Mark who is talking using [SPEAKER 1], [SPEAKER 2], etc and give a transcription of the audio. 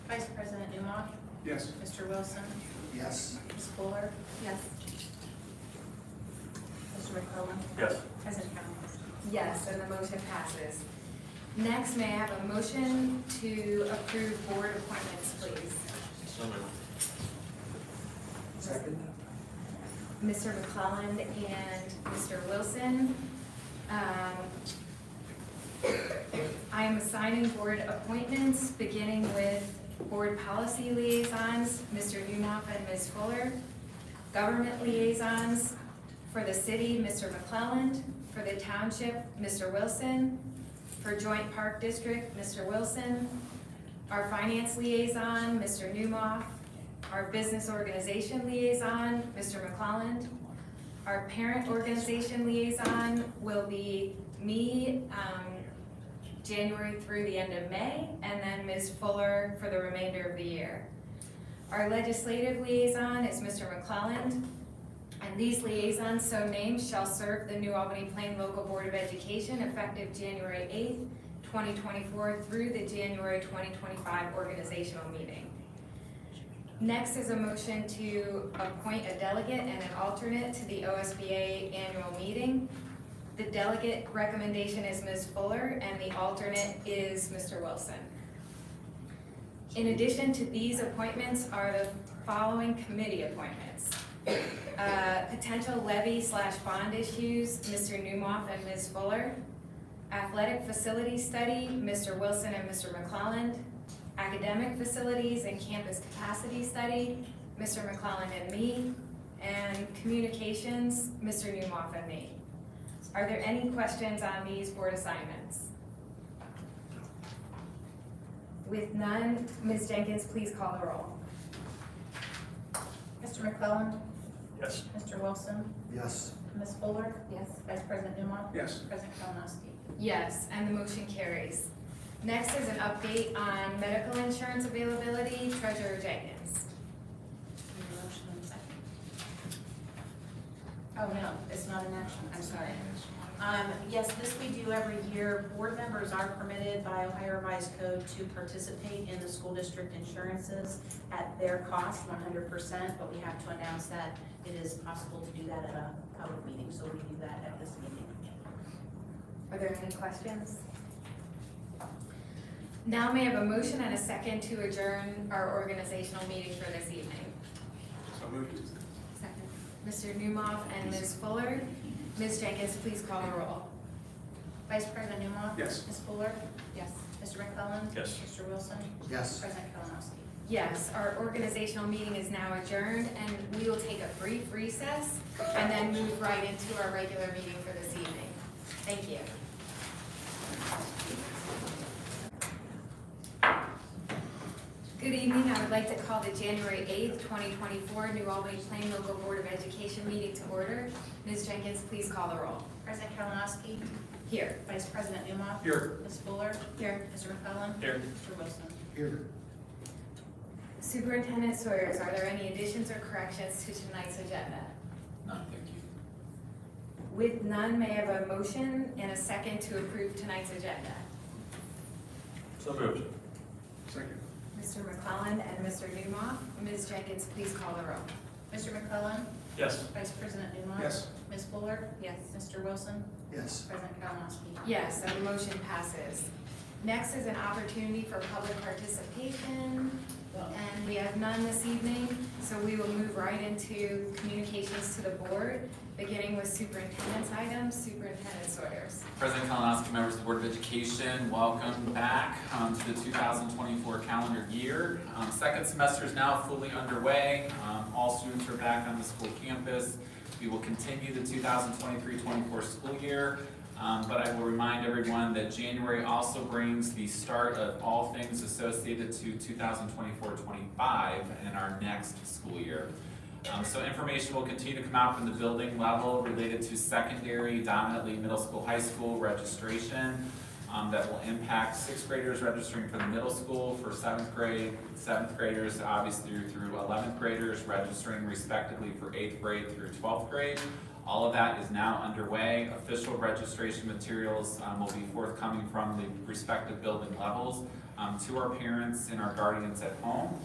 [SPEAKER 1] Vice President Newmaw,
[SPEAKER 2] Yes.
[SPEAKER 1] Mr. Wilson,
[SPEAKER 2] Yes.
[SPEAKER 1] Ms. Fuller,
[SPEAKER 3] Yes.
[SPEAKER 1] Mr. McClellan,
[SPEAKER 4] Yes.
[SPEAKER 1] President Collins.
[SPEAKER 3] Yes, and the motion passes. Next, may I have a motion to approve board appointments, please?
[SPEAKER 4] So moved.
[SPEAKER 2] Second?
[SPEAKER 3] Mr. McClelland and Mr. Wilson. Um, I am assigning board appointments, beginning with board policy liaisons, Mr. Newhoff and Ms. Fuller. Government liaisons, for the city, Mr. McClelland, for the township, Mr. Wilson, for joint park district, Mr. Wilson, our finance liaison, Mr. Newmoff, our business organization liaison, Mr. McClelland. Our parent organization liaison will be me, um, January through the end of May, and then Ms. Fuller for the remainder of the year. Our legislative liaison is Mr. McClelland, and these liaisons so named shall serve the New Albany Plain Local Board of Education effective January eighth, twenty twenty-four through the January twenty twenty-five organizational meeting. Next is a motion to appoint a delegate and an alternate to the OSBA annual meeting. The delegate recommendation is Ms. Fuller, and the alternate is Mr. Wilson. In addition to these appointments are the following committee appointments. Uh, Potential levy slash bond issues, Mr. Newmoff and Ms. Fuller. Athletic facility study, Mr. Wilson and Mr. McClelland. Academic facilities and campus capacity study, Mr. McClelland and me. And communications, Mr. Newmoff and me. Are there any questions on these board assignments? With none, Ms. Jenkins, please call the roll.
[SPEAKER 1] Mr. McClellan,
[SPEAKER 4] Yes.
[SPEAKER 1] Mr. Wilson,
[SPEAKER 2] Yes.
[SPEAKER 1] Ms. Fuller,
[SPEAKER 3] Yes.
[SPEAKER 1] Vice President Newmaw,
[SPEAKER 2] Yes.
[SPEAKER 1] President Kalinowski.
[SPEAKER 3] Yes, and the motion carries. Next is an update on medical insurance availability, Treasurer Jenkins.
[SPEAKER 1] Need a motion and a second. Oh, no, it's not an action, I'm sorry. Um, yes, this we do every year. Board members are permitted by Ohio Revised Code to participate in the school district insurances at their cost, one hundred percent, but we have to announce that it is possible to do that at a public meeting, so we do that at this meeting.
[SPEAKER 3] Are there any questions? Now may I have a motion and a second to adjourn our organizational meeting for this evening?
[SPEAKER 2] So moved.
[SPEAKER 3] Second. Mr. Newmoff and Ms. Fuller. Ms. Jenkins, please call the roll.
[SPEAKER 1] Vice President Newmaw?
[SPEAKER 2] Yes.
[SPEAKER 1] Ms. Fuller?
[SPEAKER 3] Yes.
[SPEAKER 1] Mr. McClellan?
[SPEAKER 4] Yes.
[SPEAKER 1] Mr. Wilson?
[SPEAKER 2] Yes.
[SPEAKER 1] President Kalinowski?
[SPEAKER 3] Yes, our organizational meeting is now adjourned, and we will take a brief recess and then move right into our regular meeting for this evening. Thank you. Good evening, I would like to call the January 8th, 2024 New Albany Plain Local Board of Education meeting to order. Ms. Jenkins, please call the roll.
[SPEAKER 1] President Kalinowski?
[SPEAKER 3] Here.
[SPEAKER 1] Vice President Newmaw?
[SPEAKER 2] Here.
[SPEAKER 1] Ms. Fuller?
[SPEAKER 3] Here.
[SPEAKER 1] Mr. McClellan?
[SPEAKER 4] Here.
[SPEAKER 1] Mr. Wilson?
[SPEAKER 2] Here.
[SPEAKER 3] Superintendent Sawyers, are there any additions or corrections to tonight's agenda?
[SPEAKER 4] None, thank you.
[SPEAKER 3] With none, may I have a motion and a second to approve tonight's agenda?
[SPEAKER 4] So moved.
[SPEAKER 2] Second?
[SPEAKER 3] Mr. McClellan and Mr. Newmoff. Ms. Jenkins, please call the roll.
[SPEAKER 1] Mr. McClellan?
[SPEAKER 4] Yes.
[SPEAKER 1] Vice President Newmaw?
[SPEAKER 2] Yes.
[SPEAKER 1] Ms. Fuller?
[SPEAKER 3] Yes.
[SPEAKER 1] Mr. Wilson?
[SPEAKER 2] Yes.
[SPEAKER 1] President Kalinowski?
[SPEAKER 3] Yes, and the motion passes. Next is an opportunity for public participation, and we have none this evening, so we will move right into communications to the board, beginning with superintendent's items, Superintendent Sawyers.
[SPEAKER 5] President Kalinowski, members of the Board of Education, welcome back um, to the 2024 calendar year. Um, Second semester is now fully underway. Um, All students are back on the school campus. We will continue the 2023-24 school year, Um, but I will remind everyone that January also brings the start of all things associated to 2024-25 and our next school year. Um, so information will continue to come out from the building level related to secondary, dominantly middle school, high school registration. um, that will impact sixth graders registering for the middle school, for seventh grade, seventh graders, obviously through, through eleventh graders registering respectively for eighth grade through twelfth grade. All of that is now underway. Official registration materials, um, will be forthcoming from the respective building levels. Um, um, to our parents and our guardians at home.